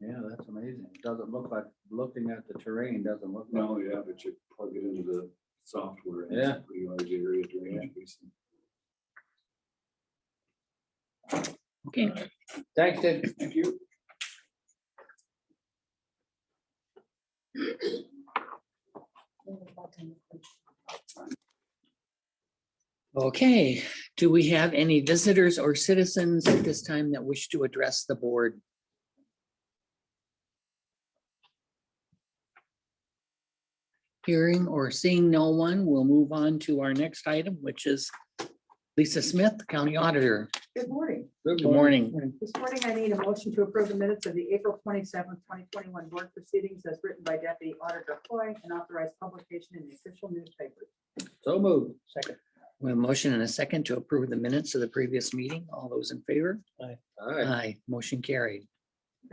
Yeah, that's amazing. Doesn't look like, looking at the terrain, doesn't look. like- No, yeah, but you plug it into the software. and Yeah. it's a Pretty large area drainage basin. Okay, Thanks, Ted. Thank you. okay. Do we have any visitors or citizens at this time that wish to address the board? Hearing or seeing no one, we'll move on to our next item, which is Lisa Smith, County Auditor. Good morning. Good morning. This morning I need a motion to approve the minutes of the April twenty-seventh, twenty twenty-one board proceedings as written by Deputy Auditor Foy and authorized publication in the official newspaper. So moved. Second. We have a motion and a second to approve the minutes of the previous meeting. All those in favor? All right. Aye, motion carried.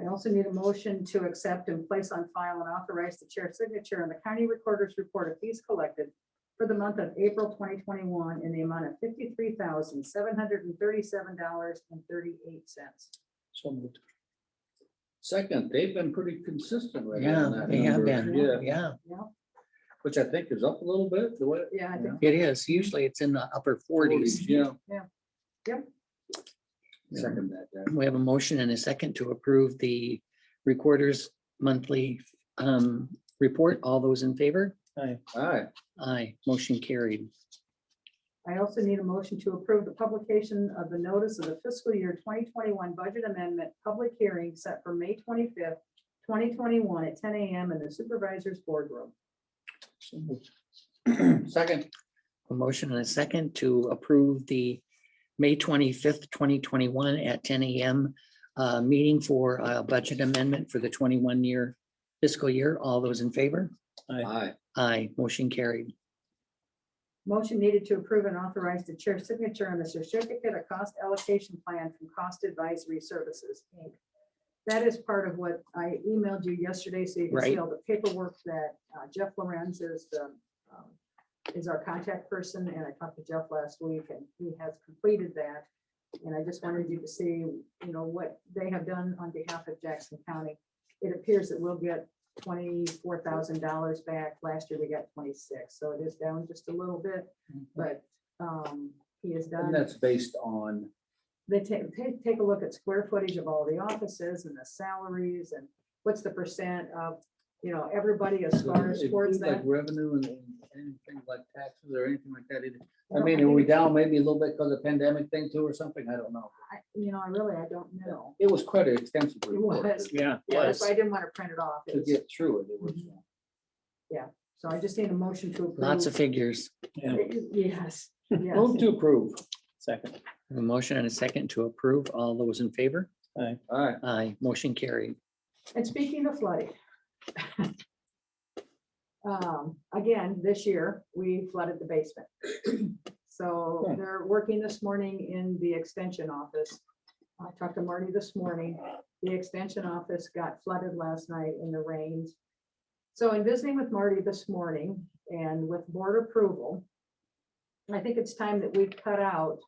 I also need a motion to accept and place on file and authorize the chair's signature on the county recorder's report of fees collected for the month of April twenty twenty-one in the amount of fifty-three thousand, seven hundred and thirty-seven dollars and thirty-eight cents. So moved. Second, they've been pretty consistent right now. Yeah, in that they have number. Yeah, been. Yeah, which I think is up a little bit, the way. Yeah, I think it is. Usually it's in the upper forties. Yeah. Yeah. Yep. Second that, yeah. We have a motion and a second to approve the recorder's monthly um, report. All those in favor? All right, Aye, motion carried. I also need a motion to approve the publication of the notice of the fiscal year twenty twenty-one budget amendment public hearing set for May twenty-fifth, twenty twenty-one at ten AM in the supervisor's boardroom. second, A motion and a second to approve the May twenty-fifth, twenty twenty-one at ten AM uh, meeting for a budget amendment for the twenty-one year fiscal year. All those in favor? aye, Aye, motion carried. Motion needed to approve and authorize the chair's signature on the certificate of cost allocation plan from Cost Advisory Services, Inc. That is part of what I emailed you yesterday, so you can see Right. all the paperwork that uh, Jeff Lorenz is the, um, is our contact person, and I talked to Jeff last week, and he has completed that. And I just wanted you to see, you know, what they have done on behalf of Jackson County. It appears that we'll get twenty-four thousand dollars back. Last year, we got twenty-six, so it is down just a little bit, Mm-hmm. but um, he is and done. that's based on, They take, take, take a look at square footage of all the offices and the salaries and what's the percent of, you know, everybody as so far it as towards includes, like that. revenue and and anything like taxes or anything like that. either. don't- I mean, are we down maybe a little bit because of pandemic thing too or something? I don't know. I- You know, I really, I don't know. It was quite an extensive It report was. to- Yeah. Yeah, that's why I didn't want to print it off. It to was- get through it. It was, Mhm. So I just need a motion to approve. Lots of figures. Yes, yes. uh, move to approve. Second. A motion and a second to approve. All those in favor? All right, Aye, motion carried. And speaking of flooding. um, Again, this year, we flooded the basement. So they're working this morning in the extension office. I talked to Marty this morning. The extension office got flooded last night in the rains. So in visiting with Marty this morning and with board approval, I think it's time that we cut out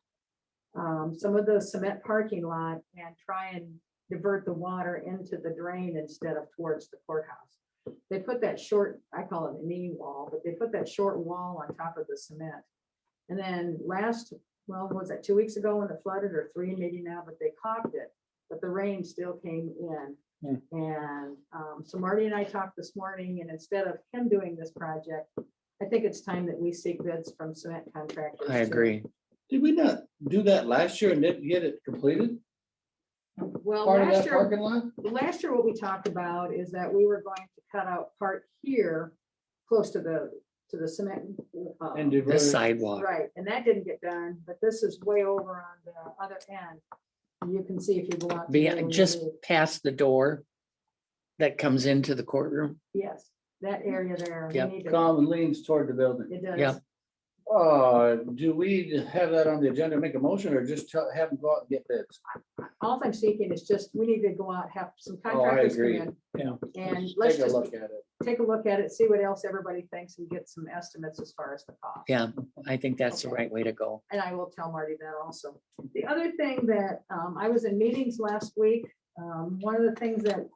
um, some of the cement parking lot and try and divert the water into the drain instead of towards the courthouse. They put that short, I call it a knee wall, but they put that short wall on top of the cement. And then last, well, was that two weeks ago when it flooded or three maybe now, but they caulked it, but the rain still came in. Hmm. And um, so Marty and I talked this morning and instead of him doing this project, I think it's time that we seek bids from cement contractors. I to- agree. did we not do that last year and didn't get it completed? Well, Part of last that year. parking lot? last year, what we talked about is that we were going to cut out part here, close to the, to the cement. uh, And did. The sidewalk. Right, and that didn't get done, but this is way over on the other end. You can see if you go out. to where Behind, we just moved. past the door that comes into the courtroom. Yes, that area there. we Yep. need to- Common leans toward the building. It does. Yep. Uh, do we have that on the agenda, make a motion or just tell- have them go out and get bids? All I'm seeking is just, we need to go out, have some contractors come Oh, agree. in. Yeah. And let's Take a just look at it. take a look at it, see what else everybody thinks and get some estimates as far as the cost. Yeah, I think that's the Okay. right way to go. and I will tell Marty that also. The other thing that, um, I was in meetings last week, um, one of the things that